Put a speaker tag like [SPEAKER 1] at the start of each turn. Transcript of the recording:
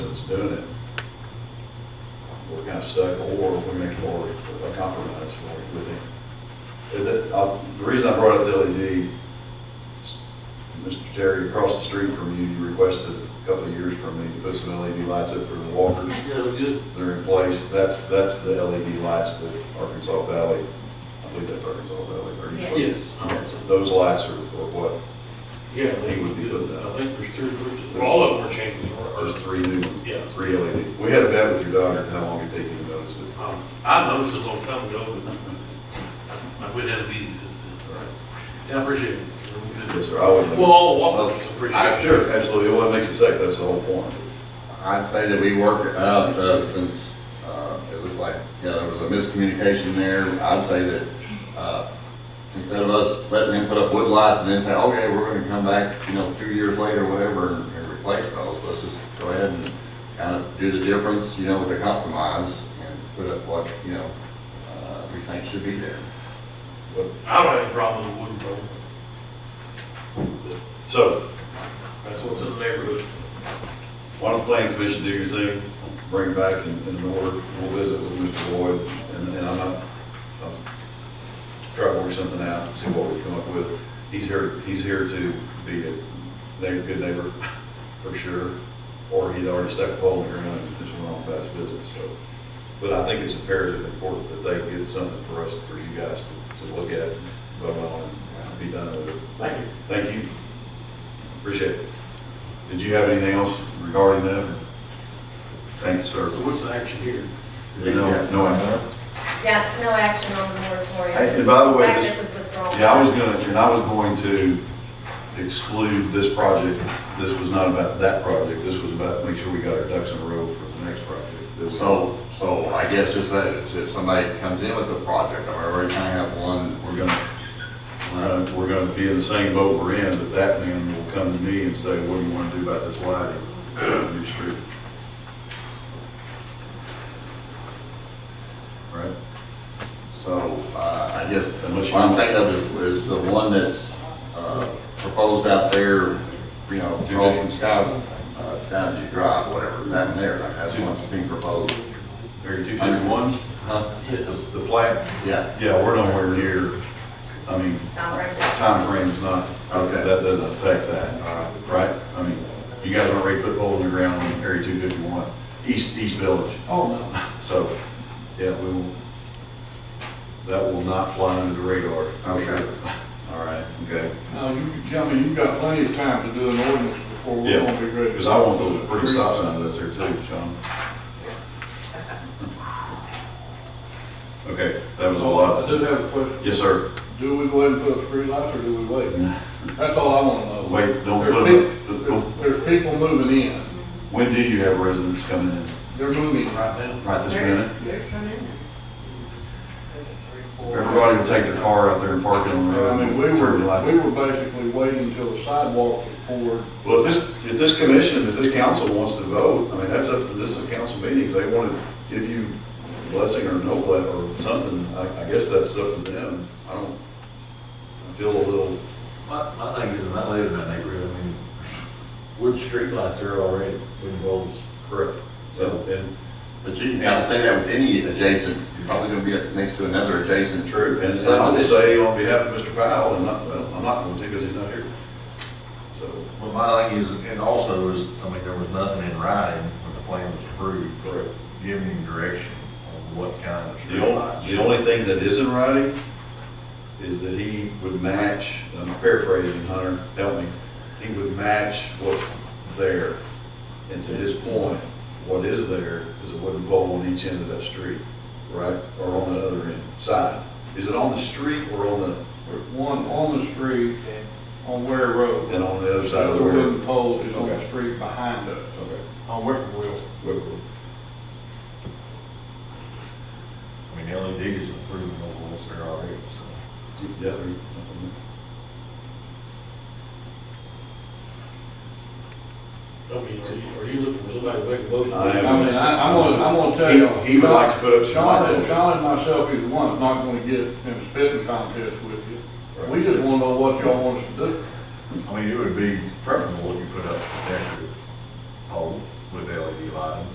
[SPEAKER 1] doing it, we're kind of stuck, or we make more a compromise for it with him. The, uh, the reason I brought up the LED, is, Mr. Terry, across the street from you, you requested a couple of years from me to put some LED lights up for the walkers.
[SPEAKER 2] Yeah, look good.
[SPEAKER 1] They're in place, that's, that's the LED lights that Arkansas Valley, I believe that's Arkansas Valley, they're usually-
[SPEAKER 2] Yes. um,
[SPEAKER 1] Those lights are, are what,
[SPEAKER 2] Yeah, they would be good. I think there's two groups.
[SPEAKER 3] Well, all of them are changing.
[SPEAKER 1] there's three new ones.
[SPEAKER 2] Yeah.
[SPEAKER 1] Three LED. We had a bet with your daughter, how long it take you to notice it.
[SPEAKER 2] Um, I noticed it a long time ago, but I went out of meetings since then. Yeah, I appreciate it.
[SPEAKER 1] Yes, sir, I would.
[SPEAKER 2] Well, all walkers appreciate it.
[SPEAKER 1] Sure, absolutely, well, it makes it safe, that's the whole point.
[SPEAKER 4] I'd say that we worked it up, uh, since, uh, it was like, you know, there was a miscommunication there. I'd say that, uh, instead of us letting them put up wood lights and then say, okay, we're gonna come back, you know, two years later, or whatever, and and replace those, let's just go ahead and kind of do the difference, you know, with a compromise and put up what, you know, uh, we think should be there.
[SPEAKER 1] But-
[SPEAKER 2] I don't have any problem with wooden road.
[SPEAKER 1] So,
[SPEAKER 2] That's what's in the neighborhood.
[SPEAKER 1] why don't the planning commission do your thing, bring it back in, in order, we'll visit with Mr. Lloyd, and, and I'm not, I'll try to work something out, see what we come up with. He's here, he's here to be a neighbor, good neighbor, for sure, or he'd already stuck a pole in the ground and just went on about his business, so. But I think it's imperative, and important that they get something for us, for you guys to, to look at, vote on, and be done with it.
[SPEAKER 2] Thank you.
[SPEAKER 1] Thank you. Appreciate it. Did you have anything else regarding that? Thank you,
[SPEAKER 2] So
[SPEAKER 1] sir.
[SPEAKER 2] what's the action here?
[SPEAKER 1] No, no, I-
[SPEAKER 5] Yeah, no action on the moratorium.
[SPEAKER 1] Hey, and by the way,
[SPEAKER 5] Fact
[SPEAKER 1] this-
[SPEAKER 5] it was withdrawn.
[SPEAKER 1] yeah, I was gonna, and I was going to exclude this project. This was not about that project. This was about make sure we got our ducks in a row for the next project. that we-
[SPEAKER 4] So, so I guess just that, if somebody comes in with a project, I mean, we already kind of have one
[SPEAKER 1] We're gonna, uh, we're gonna be in the same boat we're in, but that man will come to me and say, what do you wanna do about this lighting on New Street? Right?
[SPEAKER 4] So, uh, I guess,
[SPEAKER 1] Unless
[SPEAKER 4] what
[SPEAKER 1] you-
[SPEAKER 4] I'm thinking of is the one that's, uh, proposed out there, you know, across from Sky, uh, Skyview Drive, whatever, down there, like, that's the one that's being proposed.
[SPEAKER 1] Area two fifty-one,
[SPEAKER 4] Huh?
[SPEAKER 1] the plat,
[SPEAKER 4] Yeah,
[SPEAKER 1] yeah, we're nowhere near, I mean,
[SPEAKER 5] Not right.
[SPEAKER 1] timeframe's not,
[SPEAKER 4] Okay.
[SPEAKER 1] that doesn't affect
[SPEAKER 4] all
[SPEAKER 1] that,
[SPEAKER 4] right.
[SPEAKER 1] right? I mean, you guys already put pole in the ground on area two fifty-one, east, east village.
[SPEAKER 2] Oh, no.
[SPEAKER 1] So, yeah, we will, that will not fly under the radar.
[SPEAKER 4] Okay.
[SPEAKER 1] All right, okay.
[SPEAKER 6] Now, you, I mean, you've got plenty of time to do an ordinance before we're
[SPEAKER 1] Yeah,
[SPEAKER 6] gonna be ready.
[SPEAKER 1] Because I want those pretty stop signs up there too, Sean. Okay, that was a
[SPEAKER 6] I
[SPEAKER 1] lot.
[SPEAKER 6] do have a question.
[SPEAKER 1] Yes, sir.
[SPEAKER 6] Do we go ahead and put up street lights or do we wait? That's all I wanna know.
[SPEAKER 1] Wait, don't
[SPEAKER 6] There's
[SPEAKER 1] put
[SPEAKER 6] peop-
[SPEAKER 1] it up.
[SPEAKER 6] There's people moving in.
[SPEAKER 1] When do you have residents coming in?
[SPEAKER 6] They're moving right now.
[SPEAKER 1] Right this minute?
[SPEAKER 5] There's some in
[SPEAKER 1] Everybody will take their car out there and park it on the
[SPEAKER 6] And I
[SPEAKER 1] road.
[SPEAKER 6] mean, we were,
[SPEAKER 1] turn your lights.
[SPEAKER 6] we were basically waiting until the sidewalk was poured.
[SPEAKER 1] Well, if this, if this commission, if this council wants to vote, I mean, that's up, to this is a council meeting, if they want to give you blessing or no bless or something, I, I guess that's up to them. I don't, I feel a little,
[SPEAKER 7] My, my thing is, and I live in that neighborhood, I mean, wood streetlights are already in bulbs.
[SPEAKER 1] correct, so, and,
[SPEAKER 4] But you can kind of say that with any adjacent, you're probably gonna be up next to another adjacent
[SPEAKER 1] true.
[SPEAKER 4] troop.
[SPEAKER 1] And I will say on behalf of Mr. Powell, and not, well, I'm not going to because he's not here. So,
[SPEAKER 7] Well, my thing is, and also is, I mean, there was nothing in writing when the plan was approved.
[SPEAKER 1] Correct.
[SPEAKER 7] Giving him direction on what kind of
[SPEAKER 1] The only, the
[SPEAKER 7] streetlights.
[SPEAKER 1] only thing that is in writing is that he would match, I'm paraphrasing, Hunter, help me, he would match what's there. And to his point, what is there is a wooden pole on each end of that street, right, or on the other end, side. Is it on the street or on the,
[SPEAKER 6] There's one on the street on Ware Road.
[SPEAKER 1] and on the other
[SPEAKER 6] The
[SPEAKER 1] side of the
[SPEAKER 6] other
[SPEAKER 1] road?
[SPEAKER 6] wooden pole is on the
[SPEAKER 1] Okay.
[SPEAKER 6] street behind us.
[SPEAKER 1] Okay.
[SPEAKER 6] On Whippoorwill.
[SPEAKER 1] Well,
[SPEAKER 7] I mean, LED is approved on bulbs there already, so.
[SPEAKER 1] Yeah. we-
[SPEAKER 2] I mean, are you, are you looking for somebody to make a motion?
[SPEAKER 1] I am.
[SPEAKER 6] I mean, I, I'm gonna, I'm gonna tell you.
[SPEAKER 1] He- he would like to put up some
[SPEAKER 6] Sean
[SPEAKER 1] lights.
[SPEAKER 6] and, Sean and myself, either one, is not gonna get in a spitting contest with you. We just wanna know what y'all want us to do.
[SPEAKER 7] I mean, it would be preferable E